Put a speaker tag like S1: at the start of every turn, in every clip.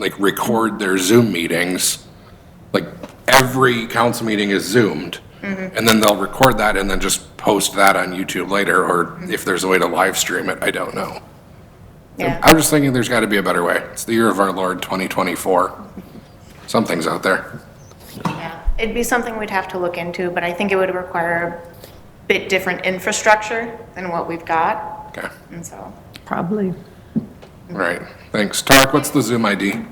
S1: like record their Zoom meetings. Like every council meeting is zoomed. And then they'll record that and then just post that on YouTube later, or if there's a way to live stream it, I don't know.
S2: Yeah.
S1: I'm just thinking there's got to be a better way. It's the year of our Lord 2024. Something's out there.
S2: Yeah, it'd be something we'd have to look into, but I think it would require a bit different infrastructure than what we've got,
S1: Okay,
S2: and so.
S3: Probably.
S1: all right, thanks. Tarek, what's the Zoom ID?
S4: Um,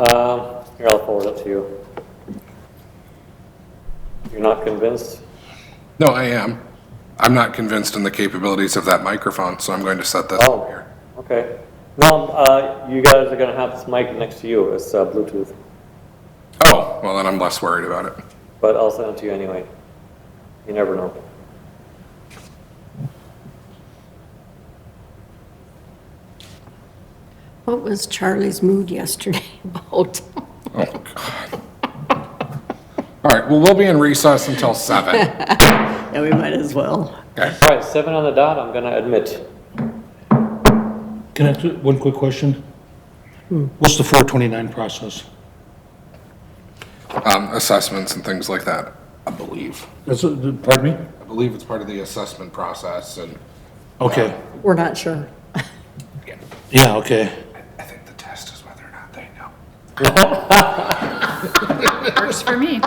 S4: here, I'll forward it to you. You're not convinced?
S1: No, I am. I'm not convinced in the capabilities of that microphone, so I'm going to set this up
S4: Oh,
S1: here.
S4: okay. No, uh, you guys are gonna have this mic next to you, it's uh, Bluetooth,
S1: Oh, well, then I'm less worried about it.
S4: but I'll send it to you anyway. You never know.
S3: What was Charlie's mood yesterday about?
S1: Oh, God. All right, well, we'll be in recess until seven.
S3: Yeah, we might as well.
S4: All right, seven on the dot, I'm gonna admit.
S5: Can I, ask one quick question? What's the 429 process?
S1: Um, Assessments and things like that, I believe.
S5: That's, a- pardon me?
S1: I believe it's part of the assessment process and,
S5: Okay,
S3: We're not sure.
S5: yeah, okay.
S1: I think the test is whether or not they know,
S6: Works for me.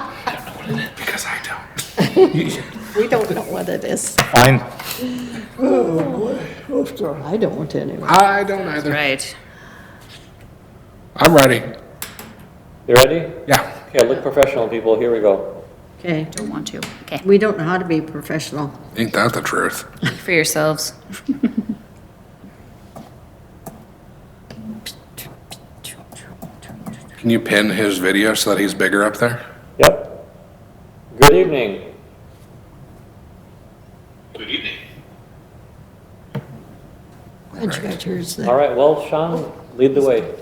S1: because I don't.
S3: We don't know what it is.
S5: Fine.
S3: I don't anyway.
S1: I don't either.
S6: Right.
S1: I'm ready.
S4: You ready?
S1: Yeah,
S4: Okay, look professional, people, here we go.
S7: Okay,
S6: Don't want to. Okay.
S7: we don't know how to be professional.
S1: ain't that the truth?
S6: Speak for yourselves.
S1: Can you pin his video so that he's bigger up there?
S4: Yep. Good evening.
S3: Glad you got yours there.
S4: All right, well, Sean, lead the way.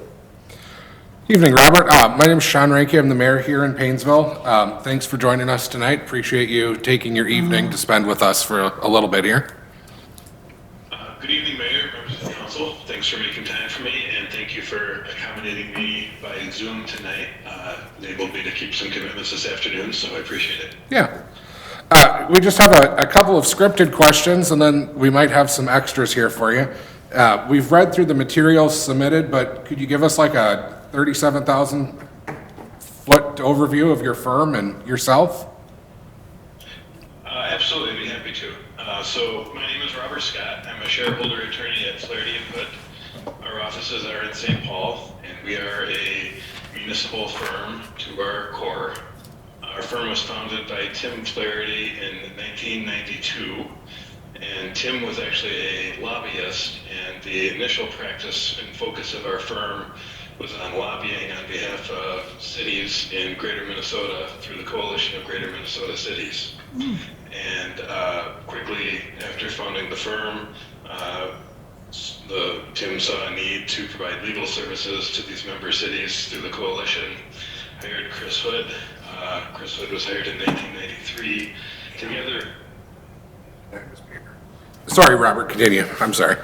S1: Evening, Robert. Uh, My name's Sean Ranky. I'm the mayor here in Painesville. Um, Thanks for joining us tonight. Appreciate you taking your
S6: Mm-hmm.
S1: evening to spend with us for a a little bit here.
S8: Uh, Good evening, Mayor, members of the council. Thanks for making time for me, and thank you for accommodating me by Zoom tonight. Uh, Enabled me to keep some commitments this afternoon, so I appreciate it.
S1: Yeah. Uh, We just have a, a couple of scripted questions, and then we might have some extras here for you. Uh, We've read through the materials submitted, but could you give us like a 37,000-foot overview of your firm and yourself?
S8: Uh, Absolutely, I'd be happy to. Uh, So my name is Robert Scott. I'm a shareholder attorney at Flaherty Input. Our offices are in St. Paul, and we are a municipal firm to our core. Our firm was founded by Tim Flaherty in 1992, and Tim was actually a lobbyist, and the initial practice and focus of our firm was on lobbying on behalf of cities in greater Minnesota through the Coalition of Greater Minnesota Cities. And uh, quickly after founding the firm, uh, s- the, Tim saw a need to provide legal services to these member cities through the coalition. Hired Chris Hood. Uh, Chris Hood was hired in 1993. Together,
S1: Sorry, Robert, continue. I'm sorry.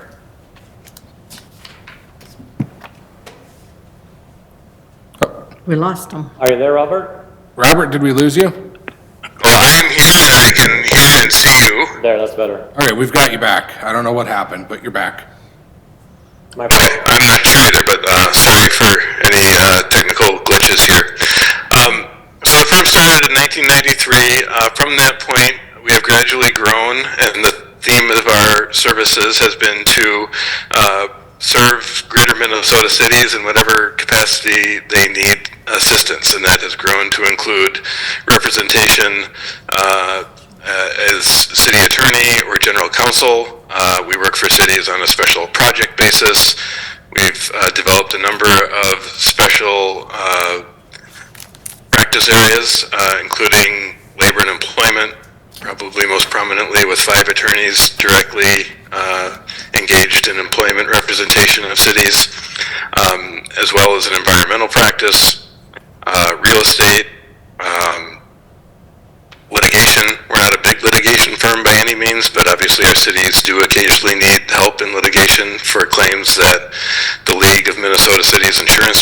S7: We lost them.
S4: Are you there, Robert?
S1: Robert, did we lose you?
S4: There, that's better.
S1: All right, we've got you back. I don't know what happened, but you're back.
S4: My,
S9: I'm not sure either, but uh, sorry for any uh, technical glitches here. Um, so the firm started in 1993. Uh, from that point, we have gradually grown, and the theme of our services has been to uh, serve greater Minnesota cities in whatever capacity they need assistance, and that has grown to include representation. Uh, uh, as city attorney or general counsel. Uh, we work for cities on a special project basis. We've uh, developed a number of special uh, practice areas, uh, including labor and employment, probably most prominently with five attorneys directly uh, engaged in employment representation of cities, um, as well as an environmental practice, uh, real estate, um, litigation. We're not a big litigation firm by any means, but obviously our cities do occasionally need help in litigation for claims that the League of Minnesota Cities Insurance